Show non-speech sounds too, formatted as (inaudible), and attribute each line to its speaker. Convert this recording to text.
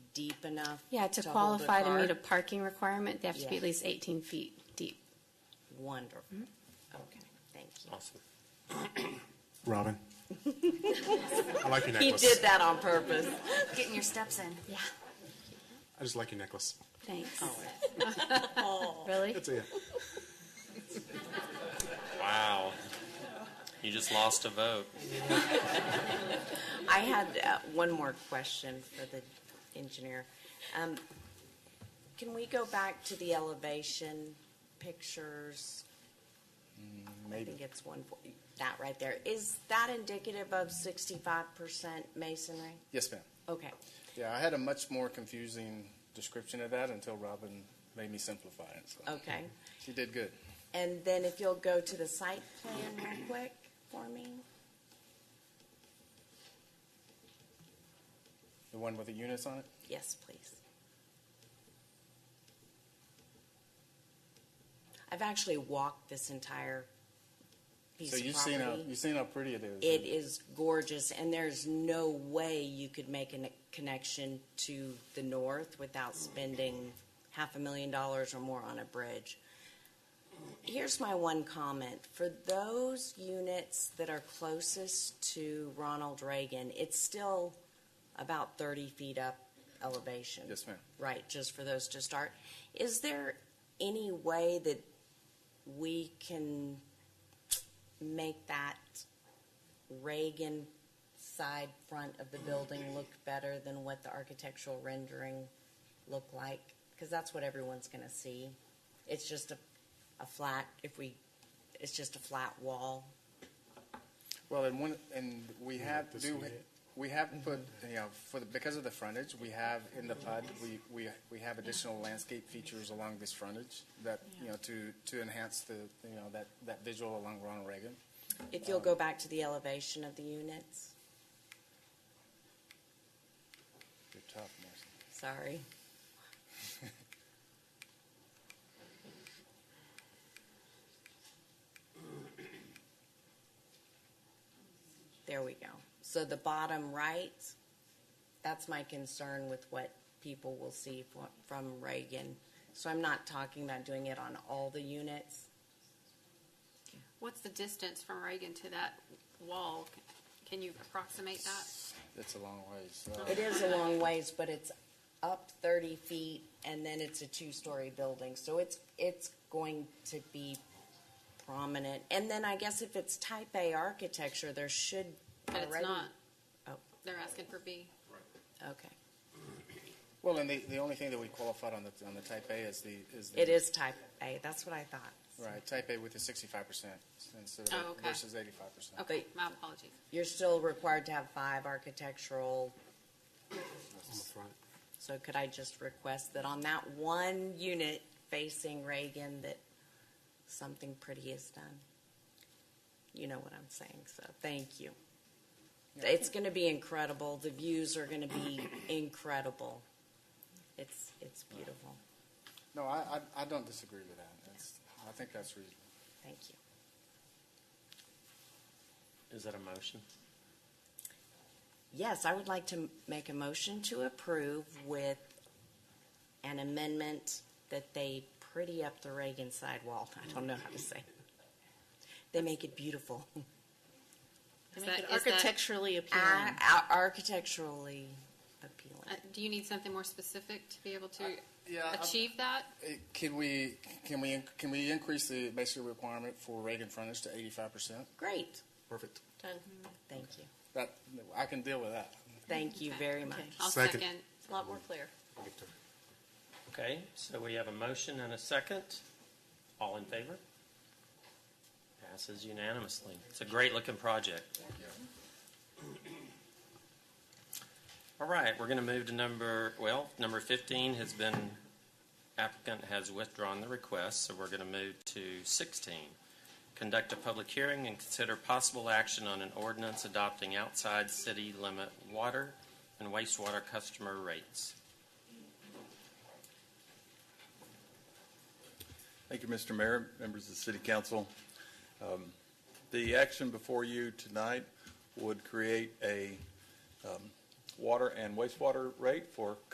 Speaker 1: deep enough?
Speaker 2: Yeah, to
Speaker 1: hold a
Speaker 2: qualify to meet
Speaker 1: car?
Speaker 2: a parking requirement, they have to be
Speaker 1: Yeah.
Speaker 2: at least 18 feet deep.
Speaker 1: Wonderful.
Speaker 2: Mm-hmm.
Speaker 1: Okay, thank you.
Speaker 3: Awesome.
Speaker 1: (laughs)
Speaker 4: Robin? I like your
Speaker 1: He
Speaker 4: necklace.
Speaker 1: did that on purpose.
Speaker 5: Getting your steps in.
Speaker 2: Yeah,
Speaker 4: I just like your necklace.
Speaker 2: thanks.
Speaker 6: (laughs)
Speaker 2: (laughs) Really?
Speaker 4: That's it.
Speaker 3: Wow. You just lost a vote.
Speaker 1: I had uh, one more question for the engineer. Um, Can we go back to the elevation pictures? I think it's one, fo- that right there. Is that indicative of sixty-five percent masonry?
Speaker 7: Yes, ma'am.
Speaker 1: Okay,
Speaker 7: Yeah, I had a much more confusing description of that until Robin made me simplify it. So
Speaker 1: okay.
Speaker 7: she did good.
Speaker 1: And then if you'll go to the site plan real quick for me?
Speaker 7: The one with the units on it?
Speaker 1: Yes, please. I've actually walked this entire piece
Speaker 7: So
Speaker 1: of property.
Speaker 7: you've seen how, you've seen how pretty it is.
Speaker 1: It is gorgeous, and there's no way you could make a ne- connection to the north without spending half a million dollars or more on a bridge. Here's my one comment. For those units that are closest to Ronald Reagan, it's still about 30 feet up elevation.
Speaker 7: Yes, ma'am.
Speaker 1: Right, just for those to start. Is there any way that we can make that Reagan side front of the building look better than what the architectural rendering looked like? Because that's what everyone's going to see. It's just a, a flat, if we, it's just a flat wall.
Speaker 7: Well, and one, and we have,
Speaker 4: this
Speaker 7: do,
Speaker 4: way.
Speaker 7: we have put, you know, for the, because of the frontage, we have in the PUD, we, we, we have additional landscape features along this frontage that, you know, to, to enhance the, you know, that, that visual along Ronald Reagan.
Speaker 1: If you'll go back to the elevation of the units,
Speaker 7: Good job, Marcy.
Speaker 1: sorry. There we go. So the bottom right, that's my concern with what people will see fro- from Reagan. So I'm not talking about doing it on all the units.
Speaker 6: What's the distance from Reagan to that wall? C- Can you approximate that?
Speaker 7: That's a long ways. Uh,
Speaker 1: It is a long ways, but it's up thirty feet and then it's a two-story building, so it's, it's going to be prominent. And then I guess if it's type A architecture, there should
Speaker 6: But
Speaker 1: already.
Speaker 6: it's not.
Speaker 1: Oh.
Speaker 6: They're asking for B.
Speaker 1: Okay,
Speaker 7: Well, and the, the only thing that we qualified on the, on the type A is the, is the.
Speaker 1: it is type A, that's what I thought.
Speaker 7: Right, type A with the sixty-five percent instead
Speaker 6: Oh,
Speaker 7: of
Speaker 6: okay.
Speaker 7: versus eighty-five percent.
Speaker 6: Okay, my apologies.
Speaker 1: You're still required to have five architectural,
Speaker 4: On the front.
Speaker 1: so could I just request that on that one unit facing Reagan that something pretty is done? You know what I'm saying, so thank you. It's going to be incredible. The views are going to be incredible. It's, it's beautiful.
Speaker 7: No, I, I, I don't disagree with that. That's, I think that's reasonable.
Speaker 1: Thank you.
Speaker 3: Is that a motion?
Speaker 1: Yes, I would like to m- make a motion to approve with an amendment that they pretty up the Reagan sidewall. (laughs) I don't know how to say. it. They make it beautiful.
Speaker 6: Is
Speaker 8: Make it
Speaker 6: that- uh, is that-
Speaker 8: architecturally appealing.
Speaker 1: Ah, ar- Architecturally appealing.
Speaker 6: uh, Do you need something more specific to be able to
Speaker 7: yeah, I-
Speaker 6: achieve that?
Speaker 7: Eh, Can we, can we, in- can we increase the basic requirement for Reagan frontage to eighty-five percent?
Speaker 1: Great.
Speaker 4: Perfect.
Speaker 1: Done. Thank you.
Speaker 7: That, I can deal with that.
Speaker 1: Thank you very much.
Speaker 6: I'll
Speaker 4: Second.
Speaker 6: second.
Speaker 8: It's a lot more clear.
Speaker 3: Okay, so we have a motion and a second. All in favor? Passes unanimously. It's a great looking project. All right, we're going to move to number, well, number 15 has been, applicant has withdrawn the request, so we're going to move to 16. Conduct a public hearing and consider possible action on an ordinance adopting outside city limit water and wastewater customer rates.
Speaker 9: Thank you, Mr. Mayor, members of the City Council. Um, The action before you tonight would create a um, water and wastewater rate for